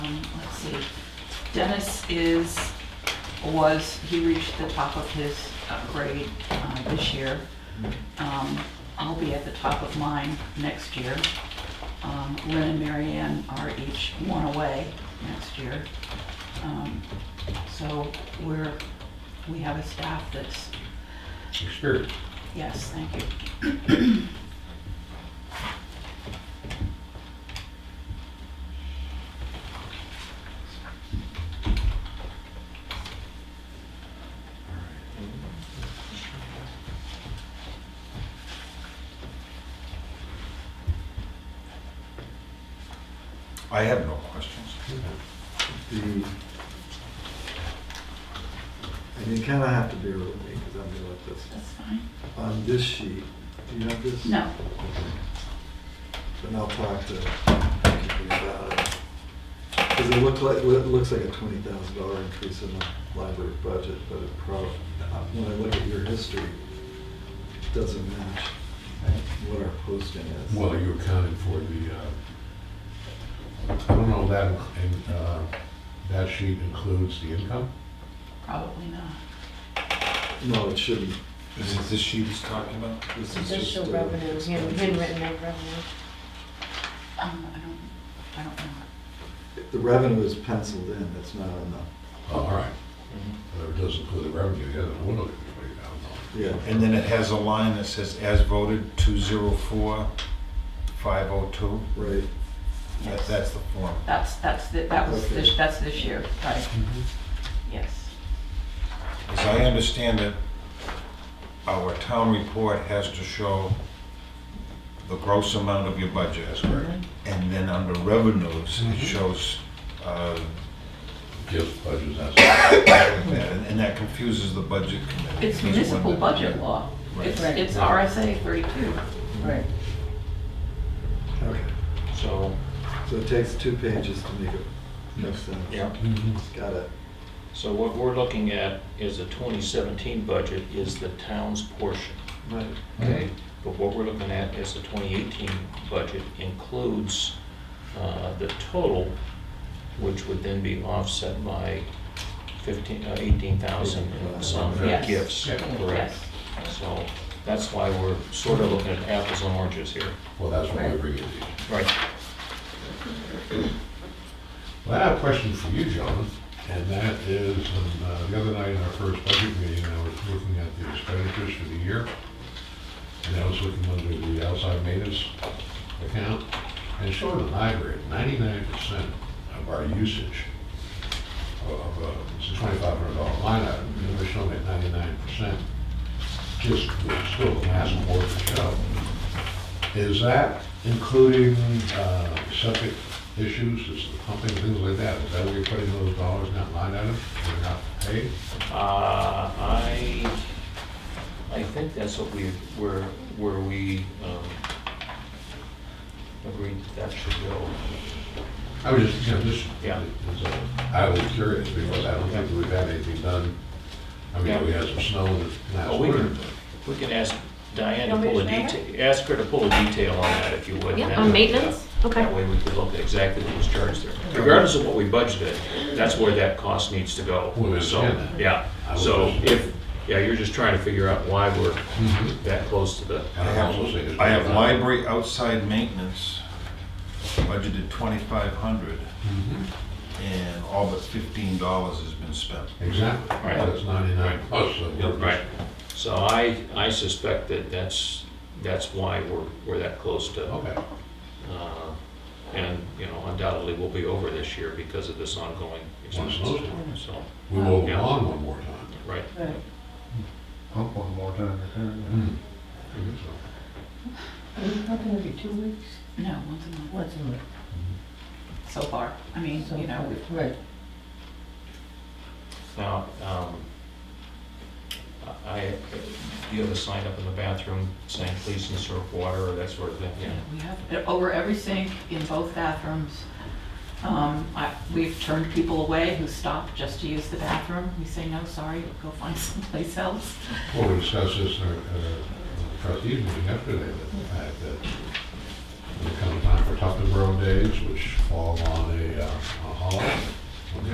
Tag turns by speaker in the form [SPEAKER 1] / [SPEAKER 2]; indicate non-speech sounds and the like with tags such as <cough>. [SPEAKER 1] Um, see. Dennis is, was, he reached the top of his uh, grade uh, this year. Um, I'll be at the top of mine next year. Um, Lynn and Mary Ann are each one away next year. Um, So we're, we have a staff that's,
[SPEAKER 2] Experience.
[SPEAKER 1] yes, thank you.
[SPEAKER 3] I have no questions.
[SPEAKER 4] the, and you kind of have to bear with me because I'm new at this.
[SPEAKER 1] That's fine.
[SPEAKER 4] On this sheet, do you have this?
[SPEAKER 1] No,
[SPEAKER 4] Then I'll talk to Kiki about it. Because it looked like, well, it looks like a twenty thousand dollar increase in the library budget, but it probably, when I look at your history, it doesn't match what our posting is.
[SPEAKER 2] Well, you accounted for the, uh, I don't know, that, and, uh, that sheet includes the income?
[SPEAKER 1] probably not.
[SPEAKER 4] No, it shouldn't.
[SPEAKER 3] Is it this sheet he's talking about?
[SPEAKER 4] This is just.
[SPEAKER 5] Additional
[SPEAKER 4] uh,
[SPEAKER 5] revenue, you know,
[SPEAKER 4] expenses.
[SPEAKER 5] handwritten out revenue.
[SPEAKER 1] Um, I don't, I don't know.
[SPEAKER 4] The revenue is penciled in, it's not on
[SPEAKER 2] Oh, All right. Uh, It doesn't include the revenue, yeah, then we'll look at twenty thousand
[SPEAKER 4] the, yeah.
[SPEAKER 3] And then it has a line that says, as voted, 204, 502.
[SPEAKER 4] Right,
[SPEAKER 3] That- That's the form.
[SPEAKER 1] That's, that's, the- that was,
[SPEAKER 4] Okay.
[SPEAKER 1] this- that's this year, right,
[SPEAKER 6] Mm-hmm.
[SPEAKER 1] yes.
[SPEAKER 3] As I understand it, our town report has to show the gross amount of your budget. That's
[SPEAKER 2] correct.
[SPEAKER 1] Mm-hmm.
[SPEAKER 3] And then under revenues, it
[SPEAKER 2] Mhm.
[SPEAKER 3] shows uh,
[SPEAKER 2] Gifts, budgets, that's,
[SPEAKER 3] that, and and that confuses the budget committee.
[SPEAKER 1] It's municipal budget law.
[SPEAKER 3] Right.
[SPEAKER 1] It's,
[SPEAKER 6] Right.
[SPEAKER 1] it's RSA 32.
[SPEAKER 6] Right.
[SPEAKER 4] okay.
[SPEAKER 3] So,
[SPEAKER 4] So it takes two pages to make it make sense.
[SPEAKER 7] Yeah,
[SPEAKER 2] Mm-hmm.
[SPEAKER 4] Got it.
[SPEAKER 7] so what we're looking at is the 2017 budget is the town's portion.
[SPEAKER 4] Right.
[SPEAKER 7] Okay. But what we're looking at is the 2018 budget includes uh, the total, which would then be offset by 15, uh, 18,000 and some
[SPEAKER 1] Yes.
[SPEAKER 7] gifts.
[SPEAKER 2] Yeah.
[SPEAKER 7] Correct.
[SPEAKER 1] Yes,
[SPEAKER 7] So that's why we're sort of looking at apples and oranges here.
[SPEAKER 2] well, that's why we bring it in.
[SPEAKER 7] Right.
[SPEAKER 2] Well, I have a question for you, John, and that is, um, uh, the other night in our first budget meeting, I was looking at the expenditures for the year, and I was looking under the outside maintenance account, and it showed the library, ninety-nine percent of our usage of, uh, it's a twenty-five hundred dollar line item, and they're showing at ninety-nine percent, just, it's still the last quarter to show. Is that including uh, septic issues, is the pumping, things like that? Is that where you're putting those dollars, in that line item, that are not paid?
[SPEAKER 7] Uh, I, I think that's what we, where, where we um, agreed that should go.
[SPEAKER 2] I was just, you know, just,
[SPEAKER 7] Yeah.
[SPEAKER 2] it's, uh, I was curious because I don't think that we've had anything done. I mean, we had some snow this last
[SPEAKER 7] Oh, we
[SPEAKER 2] winter,
[SPEAKER 7] can- We can ask Diane to
[SPEAKER 5] Want me
[SPEAKER 7] pull a
[SPEAKER 5] to share it?
[SPEAKER 7] detail, ask her to pull a detail on that if you would.
[SPEAKER 5] Yeah,
[SPEAKER 7] That
[SPEAKER 5] on
[SPEAKER 7] would-
[SPEAKER 5] maintenance? Okay.
[SPEAKER 7] That way we could look at exactly what was charged there. Regardless of what we budgeted, that's where that cost needs to go.
[SPEAKER 2] We understand
[SPEAKER 7] So,
[SPEAKER 2] that.
[SPEAKER 7] Yeah,
[SPEAKER 2] I was
[SPEAKER 7] so
[SPEAKER 2] just-
[SPEAKER 7] if, yeah, you're just trying to figure out why we're
[SPEAKER 2] Mhm.
[SPEAKER 7] that close to the,
[SPEAKER 2] and
[SPEAKER 3] I
[SPEAKER 2] I also
[SPEAKER 3] have,
[SPEAKER 2] think it's-
[SPEAKER 3] I have library outside maintenance budgeted twenty-five hundred,
[SPEAKER 2] Mhm.
[SPEAKER 3] and all but fifteen dollars has been spent.
[SPEAKER 2] Exactly,
[SPEAKER 7] Right.
[SPEAKER 2] that's ninety-nine plus. so we're just-
[SPEAKER 7] Right. So I, I suspect that that's, that's why we're, we're that close to,
[SPEAKER 2] Okay,
[SPEAKER 7] uh, and, you know, undoubtedly we'll be over this year because of this ongoing
[SPEAKER 2] Once
[SPEAKER 7] expense.
[SPEAKER 2] those-
[SPEAKER 7] So,
[SPEAKER 2] we will go
[SPEAKER 7] Yeah.
[SPEAKER 2] on one more time.
[SPEAKER 7] right.
[SPEAKER 6] Right.
[SPEAKER 8] Pump one more time.
[SPEAKER 3] Mm-hmm.
[SPEAKER 2] Mhm.
[SPEAKER 7] Mhm.
[SPEAKER 2] So-
[SPEAKER 6] Are we talking every two weeks?
[SPEAKER 1] no, once a month,
[SPEAKER 6] Once a month?
[SPEAKER 1] so far. I mean,
[SPEAKER 6] so-
[SPEAKER 1] you know, we've-
[SPEAKER 6] Right.
[SPEAKER 7] Now, um, I, do you have a sign up in the bathroom saying please insert water or that sort of thing? Yeah.
[SPEAKER 1] we have, it over every sink in both bathrooms. Um, I, we've turned people away who stop just to use the bathroom. We say, no, sorry, go find <laughs> someplace else.
[SPEAKER 2] Well, we discussed this in our uh, trustees meeting yesterday, that the fact that when it comes time for Tupperware Days, which fall on a uh, a holiday,